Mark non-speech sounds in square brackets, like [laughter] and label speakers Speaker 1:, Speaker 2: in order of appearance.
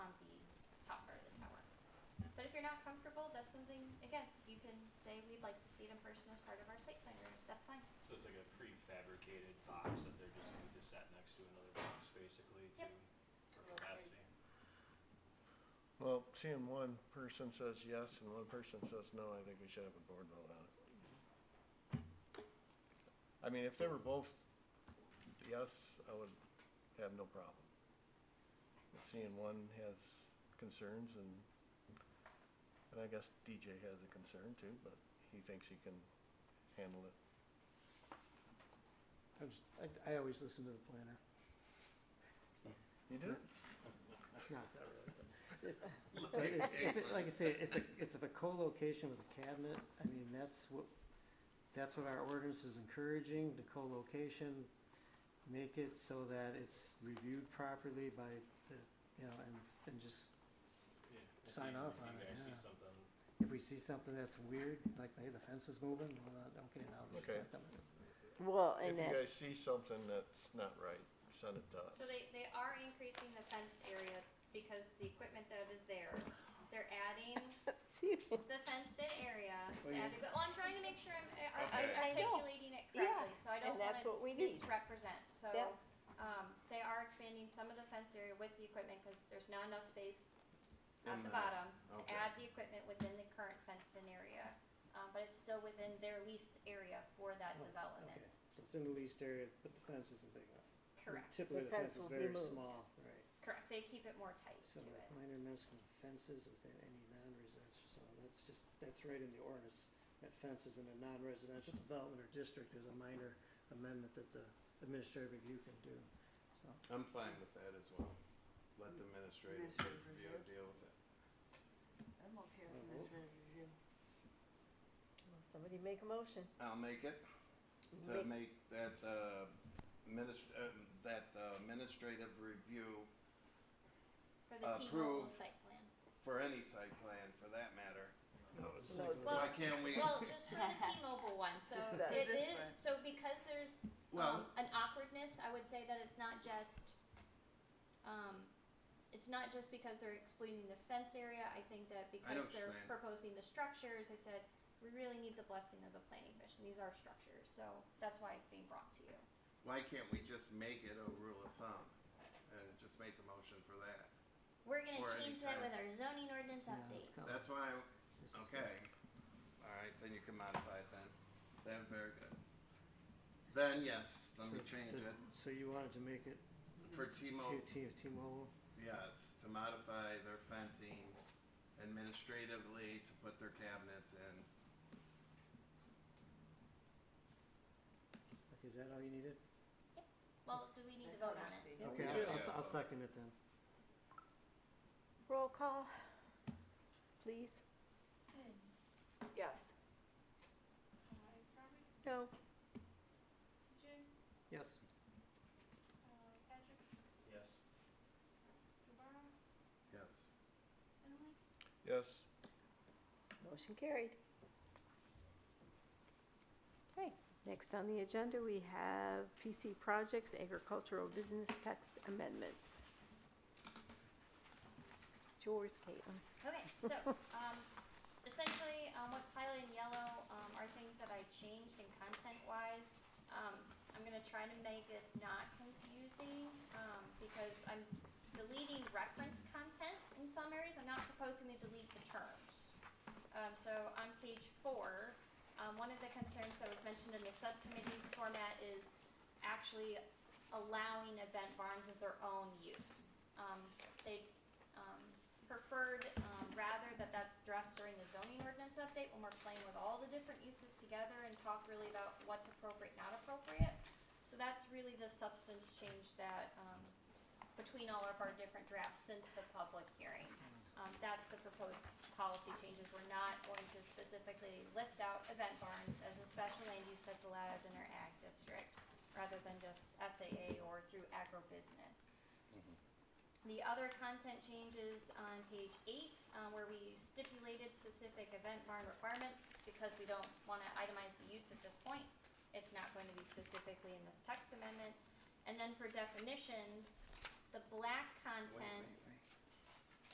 Speaker 1: Hmm.
Speaker 2: comfortable, that's something, again, you can say we'd like to see it in person as part of our site plan review, that's fine.
Speaker 3: So it's like a prefabricated box that they're just going to set next to another box basically to,
Speaker 2: Yep.
Speaker 3: for capacity.
Speaker 4: Well, seeing one person says yes and one person says no, I think we should have a board vote on it. I mean, if they were both yes, I would have no problem. But Seeing one has concerns and, and I guess DJ has a concern too, but he thinks he can handle it.
Speaker 5: I was, I, I always listen to the planner, [laughs]
Speaker 4: You do?
Speaker 5: not that really, but. it- if- if it- Like I say, it's a, it's a co-location with a cabinet, I mean, that's what, that's what our ordinance is encouraging, the co-location. Make it so that it's reviewed properly by the, you know, and, and just,
Speaker 3: Yeah. If
Speaker 5: Sign
Speaker 3: you-
Speaker 5: off
Speaker 3: if
Speaker 5: on it,
Speaker 3: You guys see
Speaker 5: yeah.
Speaker 3: something,
Speaker 5: if we see something that's weird, like, hey, the fence is moving, well, uh, okay, now let's
Speaker 4: Okay.
Speaker 5: let them.
Speaker 1: Well,
Speaker 4: If
Speaker 1: and
Speaker 4: you guys
Speaker 1: that's,
Speaker 4: see something that's not right, send it to us.
Speaker 2: So they, they are increasing the fenced area because the equipment that is there, they're adding
Speaker 1: [laughs] see,
Speaker 2: the fenced in area, to
Speaker 5: Well, you-
Speaker 2: add the- well, I'm trying to make sure I'm uh, ar-
Speaker 3: Okay.
Speaker 1: I- I know.
Speaker 2: articulating it
Speaker 1: Yeah,
Speaker 2: correctly, so I
Speaker 1: and
Speaker 2: don't
Speaker 1: that's
Speaker 2: wanna
Speaker 1: what we need.
Speaker 2: misrepresent, so.
Speaker 1: Yeah.
Speaker 2: Um, they are expanding some of the fenced area with the equipment, cause there's not enough space at
Speaker 4: In
Speaker 2: the
Speaker 4: the-
Speaker 2: bottom to
Speaker 4: okay.
Speaker 2: add the equipment within the current fenced in area. Um, but it's still within their leased area for that
Speaker 5: Oh, it's-
Speaker 2: development,
Speaker 5: Okay, so it's in the leased area, but the fence isn't big enough.
Speaker 2: correct,
Speaker 5: Typically,
Speaker 1: The
Speaker 5: the
Speaker 1: fence
Speaker 5: fence is
Speaker 1: will be
Speaker 5: very
Speaker 1: moved.
Speaker 5: small, right.
Speaker 2: correct, they keep it more tight to
Speaker 5: So
Speaker 2: it.
Speaker 5: minor municipal fences within any non-residential zone, that's just, that's right in the ordinance. That fences in a non-residential development or district is a minor amendment that the administrative review can do, so.
Speaker 6: I'm fine with that as well. Let the administrative
Speaker 7: Administrative
Speaker 6: review
Speaker 7: review.
Speaker 6: deal with it.
Speaker 7: I'm okay
Speaker 5: with this
Speaker 7: with this review.
Speaker 1: somebody make a motion.
Speaker 6: I'll make it to make that, uh, minist- uh, that uh, administrative review
Speaker 2: For the T-Mobile
Speaker 6: Approve.
Speaker 2: site plan.
Speaker 6: for any site plan for that matter.
Speaker 1: No,
Speaker 2: Well,
Speaker 6: Why can't we,
Speaker 2: Well, just for the T-Mobile
Speaker 6: [laughs]
Speaker 2: one, so
Speaker 1: Just
Speaker 2: it
Speaker 1: that.
Speaker 7: This
Speaker 2: is,
Speaker 7: one.
Speaker 2: so because there's, um,
Speaker 6: well,
Speaker 2: an awkwardness, I would say that it's not just, um, it's not just because they're excluding the fence area, I think that because
Speaker 6: what
Speaker 2: they're
Speaker 6: you're saying.
Speaker 2: proposing the structures, I said, we really need the blessing of the planning commission, these are structures, so that's why it's being brought to you.
Speaker 6: why can't we just make it a rule of thumb? And just make a motion for that.
Speaker 2: We're gonna
Speaker 6: Or
Speaker 2: change that
Speaker 6: anytime.
Speaker 2: with our zoning ordinance
Speaker 5: yeah,
Speaker 2: update.
Speaker 5: it's kind of-
Speaker 6: That's why,
Speaker 5: this is Oh. good.
Speaker 6: okay. All right, then you can modify it then. Then, very good. Then, yes, let me
Speaker 5: So-
Speaker 6: change
Speaker 5: so-
Speaker 6: it
Speaker 5: So you wanted to make it
Speaker 6: for
Speaker 5: to
Speaker 6: T-Mobile.
Speaker 5: T, T-Mobile,
Speaker 6: Yes, to modify their fencing administratively to put their cabinets in.
Speaker 5: okay, is that all you needed?
Speaker 2: Well, do we need to vote on it?
Speaker 5: Okay,
Speaker 6: Yeah.
Speaker 5: I'll, I'll second it then.
Speaker 1: Roll call, please. Yes. No,
Speaker 5: Yes,
Speaker 3: yes.
Speaker 6: Yes.
Speaker 4: Yes,
Speaker 1: motion carried. Okay, next on the agenda, we have PC Projects Agricultural Business Text Amendments. It's yours, Caitlin.
Speaker 2: Okay, so, um, essentially, um, what's highlighted in yellow, um, are things that I changed in content-wise. Um, I'm gonna try to make this not confusing, um, because I'm deleting reference content in some areas, I'm not proposing to delete the terms. Um, so on page four, um, one of the concerns that was mentioned in the subcommittee's format is actually allowing event barns as their own use. Um, they, um, preferred, um, rather that that's addressed during the zoning ordinance update when we're playing with all the different uses together and talk really about what's appropriate, not appropriate. So that's really the substance change that, um, between all of our different drafts since the public hearing. Um, that's the proposed policy changes. We're not going to specifically list out event barns as a special land use that's allowed in our ag district, rather than just SAA or through agribusiness. The other content changes on page eight, uh, where we stipulated specific event barn requirements, because we don't wanna itemize the use at this point. It's not going to be specifically in this text amendment. And then for definitions, the black
Speaker 6: Wait,
Speaker 2: content
Speaker 6: wait,